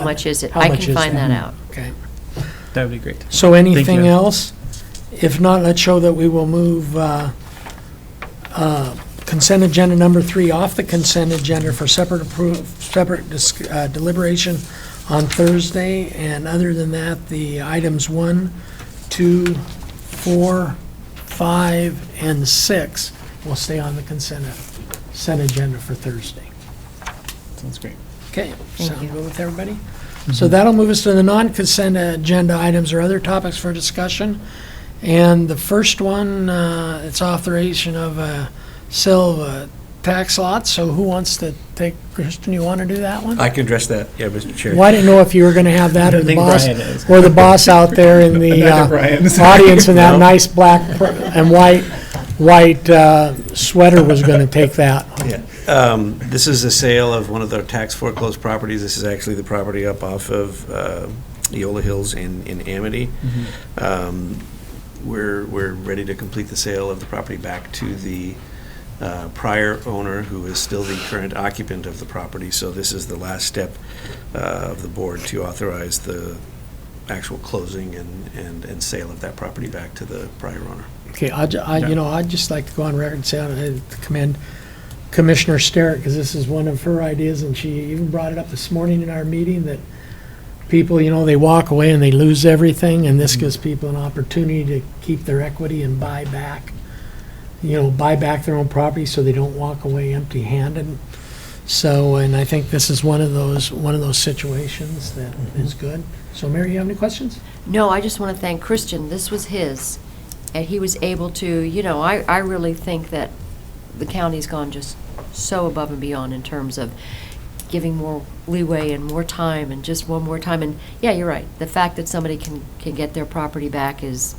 How much is it? How I much can is find that? that out. Okay. That would be great. So anything you. else? If not, let's show that we will move uh, uh, consent agenda number three off the consent agenda for separate approval, separate dis- uh, deliberation on Thursday. And other than that, the items one, two, four, five, and six will stay on the consent, consent agenda for Thursday. Sounds great. Okay, Thank sound you. good with everybody? So that'll move us to the non-consent agenda items or other topics for discussion. And the first one, uh, it's authorization of uh, sale of uh, tax lots. So who wants to take, Kristen, you want to do that one? I can address that, yeah, Mr. Chair. Well, I didn't know if you were going to have that or I the think boss, Brian is. or the boss out there in the Another uh, Brian's. audience in that No. nice black pr- and white, white uh, sweater was going to take that. Yeah. Um, This is the sale of one of their tax foreclosed properties. This is actually the property up off of uh, Eola Hills in in Amity. Um, We're, we're ready to complete the sale of the property back to the uh, prior owner, who is still the current occupant of the property. So this is the last step uh, of the board to authorize the actual closing and, and and sale of that property back to the prior owner. Okay, I, ju- I- you know, I'd just like to go on record and say, I commend Commissioner Sterrett, because this is one of her ideas, and she even brought it up this morning in our meeting, that people, you know, they walk away and they lose everything, and this gives people an opportunity to keep their equity and buy back, you know, buy back their own property so they don't walk away empty-handed. So, and I think this is one of those, one of those situations that is good. So Mary, you have any questions? No, I just want to thank Christian. This was his, and he was able to, you know, I, I really think that the county's gone just so above and beyond in terms of giving more leeway and more time and just one more time. And, yeah, you're right. The fact that somebody can, can get their property back is,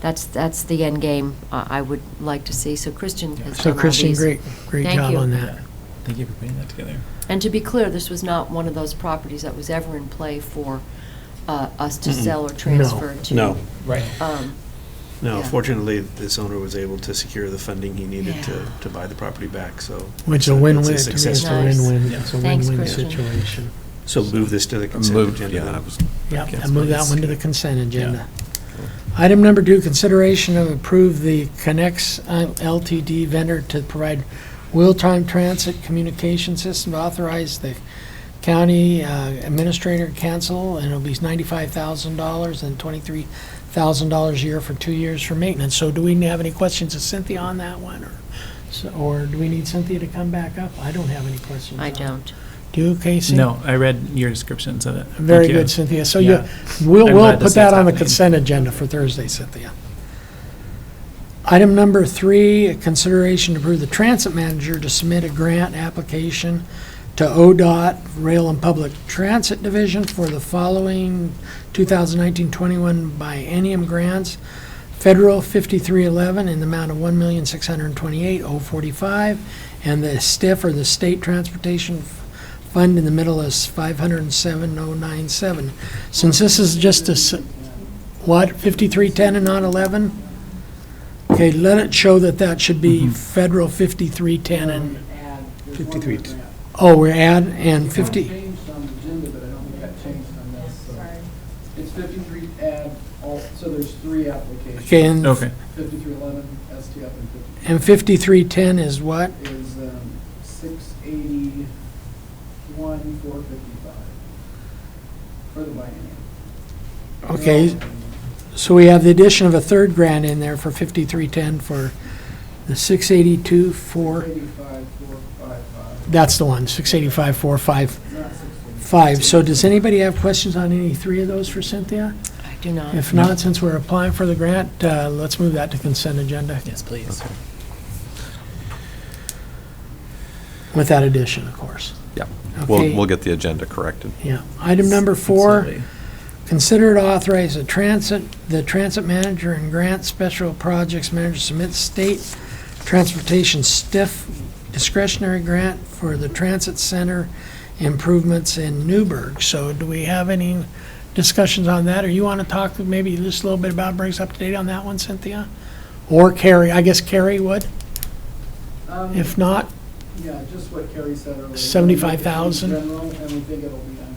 that's, that's the end game uh, I I would like to see. So Christian has done So all Christian, these. great, great Thank job you. on that. Thank you for putting that together. And to be clear, this was not one of those properties that was ever in play for uh, us to sell or transfer to. No. Right. Um, No, Yeah. fortunately, this owner was able to secure the funding he needed to, Yeah. to buy the property back, so. Which is it's a win-win, to me, it's it's success a story. story. Nice. win-win, it's a Thanks, win-win Christian. situation. So move this to the consent Moved, agenda yeah, I then. was- Yep, Okay. I move that one to the consent agenda. Item number two, consideration of approve the Connex uh, LTD vendor to provide real-time transit communication system to authorize the county uh, administrator council, and it'll be ninety-five thousand dollars and twenty-three thousand dollars a year for two years for maintenance. So do we have any questions of Cynthia on that one, or, so- or do we need Cynthia to come back up? I don't have any questions. I on it. don't. Do you, Casey? No, I read your descriptions of it. Thank Very you. good, Cynthia. So you, Yeah. we'll, I'm we'll glad this put is that on the happening. consent agenda for Thursday, Cynthia. Item number three, consideration to approve the transit manager to submit a grant application to ODOT Rail and Public Transit Division for the following 2019-21 biennium grants. Federal 5311 in the amount of $1,628,045, and the STIF or the State Transportation fund in the middle is 507,097. Since this is just a, s- what, 5310 and not 11? Okay, let it show that that should be federal 5310 and, 53. oh, we're add, and 50, Changed on the agenda, but I don't think that changed on this, so. It's fifty-three add, all, so there's three applications, okay, and Okay, fifty-three eleven, STF, and fifty and 5310 is what? is, um, six eighty-one, four fifty-five. For the biennium. Okay, so we have the addition of a third grant in there for 5310 for the 682, 4, Eighty-five, four, five, five, that's the one, 685, 455. not sixteen. So does anybody have questions on any three of those for Cynthia? I do not. If not, since we're applying for the grant, uh, let's move that to consent agenda yes, please. with that addition, of course. Yeah. Okay. We'll, we'll get the agenda corrected. Yeah. Item number four, Absolutely. consider to authorize the transit, the transit manager and grant special projects manager submit state transportation stiff discretionary grant for the transit center improvements in Newburgh. So do we have any discussions on that? Or you want to talk maybe just a little bit about, brings up to date on that one, Cynthia? Or Carrie, I guess Carrie would. Um, If not, Yeah, just what Kerry said earlier. 75,000? General, and we think it'll be under